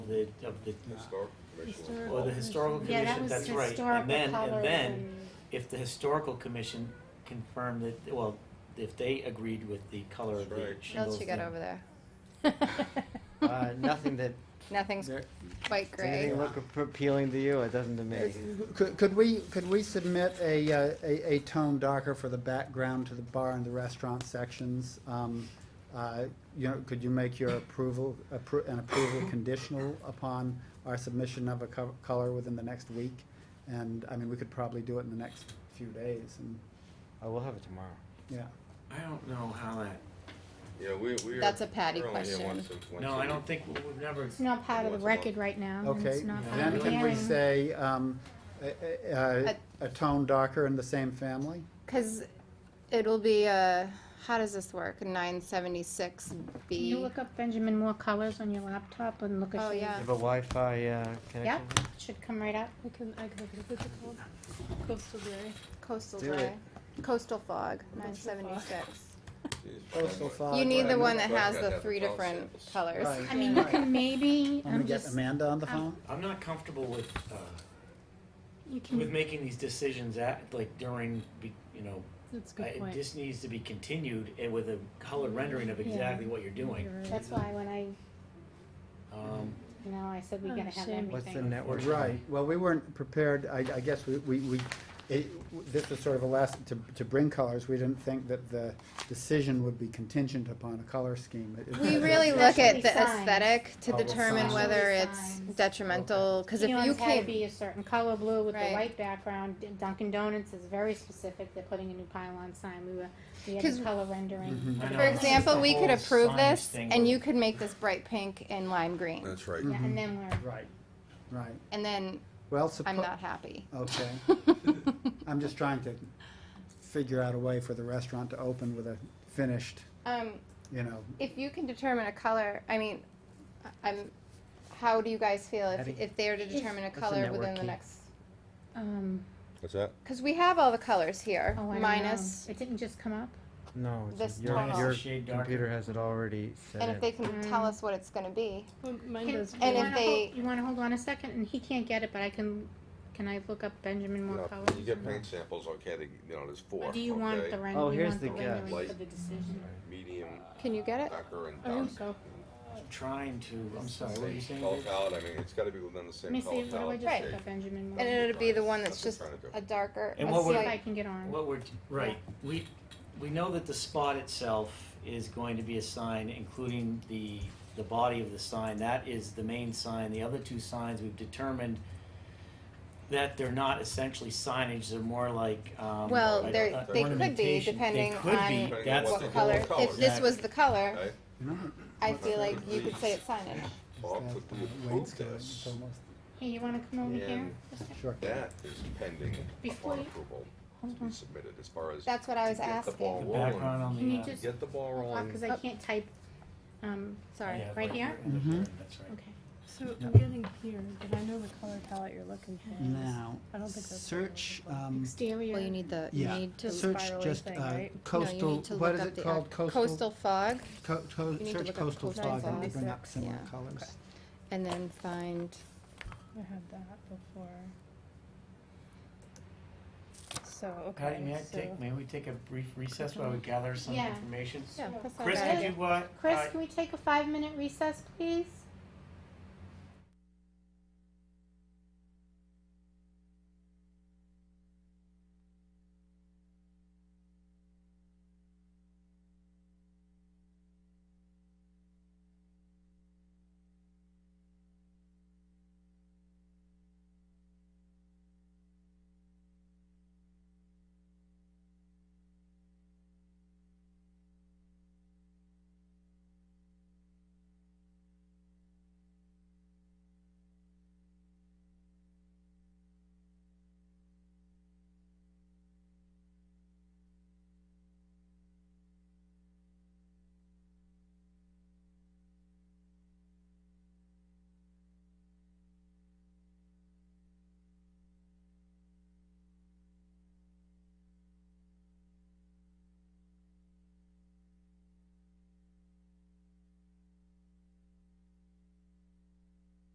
the, of the, Historical commission. or the historical Yeah, that commission, was that's right. historical And then, colors and then, and- if the historical commission confirmed that, well, if they agreed with the color of That's the right. What shingles. else you got then- over there? Uh, nothing that Nothing's there- quite does anything gray. look ap- appealing to you. It doesn't to me. Could, could we, could we submit a, uh, a, a tone darker for the background to the bar and the restaurant sections? Um, uh, You know, could you make your approval, appro- an approval conditional upon our submission of a co- color within the next week? And, I mean, we could probably do it in the next few days, and, I will have it tomorrow. yeah. I don't know how that, Yeah, we, we. That's are- a Patty we're only here question. once a- once no, a I week. don't think, we've never, It's not part of the What's about- record right now. and Okay, it's not Yeah. part then of the can we hearing. say, um, a, a- a- a tone darker in the same family? Because it'll be, uh, how does this work? Nine seventy-six Can B. you look up Benjamin Moore colors on your laptop and look at Oh, your- You yeah. have a Wi-Fi uh, connection. Yeah, should come right up. I can, I can look at the code. Coastal Gray. Coastal Do gray. it. Coastal fog, nine Coastal fog. seventy-six. Jeez, Oh, Coastal Fran, Uh, fog. You need Fran, the one that Fran has had the that three policy. different colors. Right. I mean, you Right. can maybe, I'm gonna I'm get just, Amanda on the I'm- phone. I'm not comfortable with, uh, you with can, making these decisions at, like during, be- you know, That's a I- good point. this needs to be continued and with a colored rendering of Yeah. exactly what you're doing. You're right. that's why when I, Um, you know, I said we gotta have Understand. What's the everything. network? Right, well, we weren't prepared, I, I guess we, we, we, it, this was sort of a last, to, to bring colors, we didn't think that the decision would be contingent upon a color scheme. It- it- We it- really look at Especially the signs. aesthetic to Oh, well, determine signs. whether Especially it's signs. detrimental, cause if know, you it's had to came, Be a certain color blue with Right. a white background. D- Dunkin' Donuts is very specific. They're putting a new pylon sign. We were, we had 'Cause- the color rendering. Mm-hmm. I know, for it's just example, the we could whole approve signage this thing and with- you could make this bright pink and lime green. That's right. Yeah, and then we're, Right, right, And then well, I'm suppo- not happy. okay, I'm just trying to figure out a way for the restaurant to open with a finished, Um, you know, if you can determine a color, I mean, I- I'm, how do you guys feel if, Abby? if they are to determine a What's the color network within the key? next? um, What's that? Cause we have all the colors here, oh, I don't minus, know. It didn't just come up. No, it's- This your, tonal. your Shade darker. computer has it already set and if they in. can Mm. tell us what it's gonna be. Well, mine Can- does. you And if wanna they- hold- you want to hold on a second, and he can't get it, but I can. Can I look up Benjamin Moore No, colors? You get paint samples, okay, they- you know, there's four, Or do you want okay? the render? Oh, you here's want the guess. rendering for Light. the decision. Medium, Can you get it? darker, and I dark. think Oh, so. Trying to, I'm sorry, what were you Same saying? color Dave? palette, I mean, it's gotta be within the Let same me see. color What do I palette. just Right. look up, Benjamin Moore? And Let's it'll be the one that's That's just what I'm trying to a darker, And a what see we're- if I slight, can get on. What we're, right, we, we know that the spot itself is going to be a sign, including the, the body of the sign, that is the main sign, the other two signs, we've determined that they're not essentially signage, they're more like, um. well, like, they're, uh, they could be, ornamentation. depending They could be, on Depending on that's what the what whole color. color If this is. was the color, Okay, you know. I What feel like color you is could say it's signage. Bob that quickly approved uh, wainscot, this. it's almost- Hey, you want to come over here? And Just a- Sure. that is pending Before upon you- approval to Hold be on. submitted as far as. That's what I to was get the asking. ball The rolling. background on the. Can you uh, just Get the ball rolling. because I can't type. Um, Sorry. yeah, right here? in the Mhm. frame, That's right. okay. So I'm getting here, but I know the color palette you're looking for. Now, I don't think that's. what I'm search, looking for. um, Exterior. Well, you need the, you yeah, need to, the search spirally just thing, uh, right? no, you coastal, need to what look is up it the, uh, called, coastal? coastal fog, Co- co- need to search look up coastal coastal fog and fog. bring up similar Yeah. colors. and then find, I had that before. So, okay. Patty, may I so take, may we take a brief recess while we gather some Yeah. information? yeah, that's not Chris, bad. did you, uh, Chris, uh, can we take a five minute recess, please?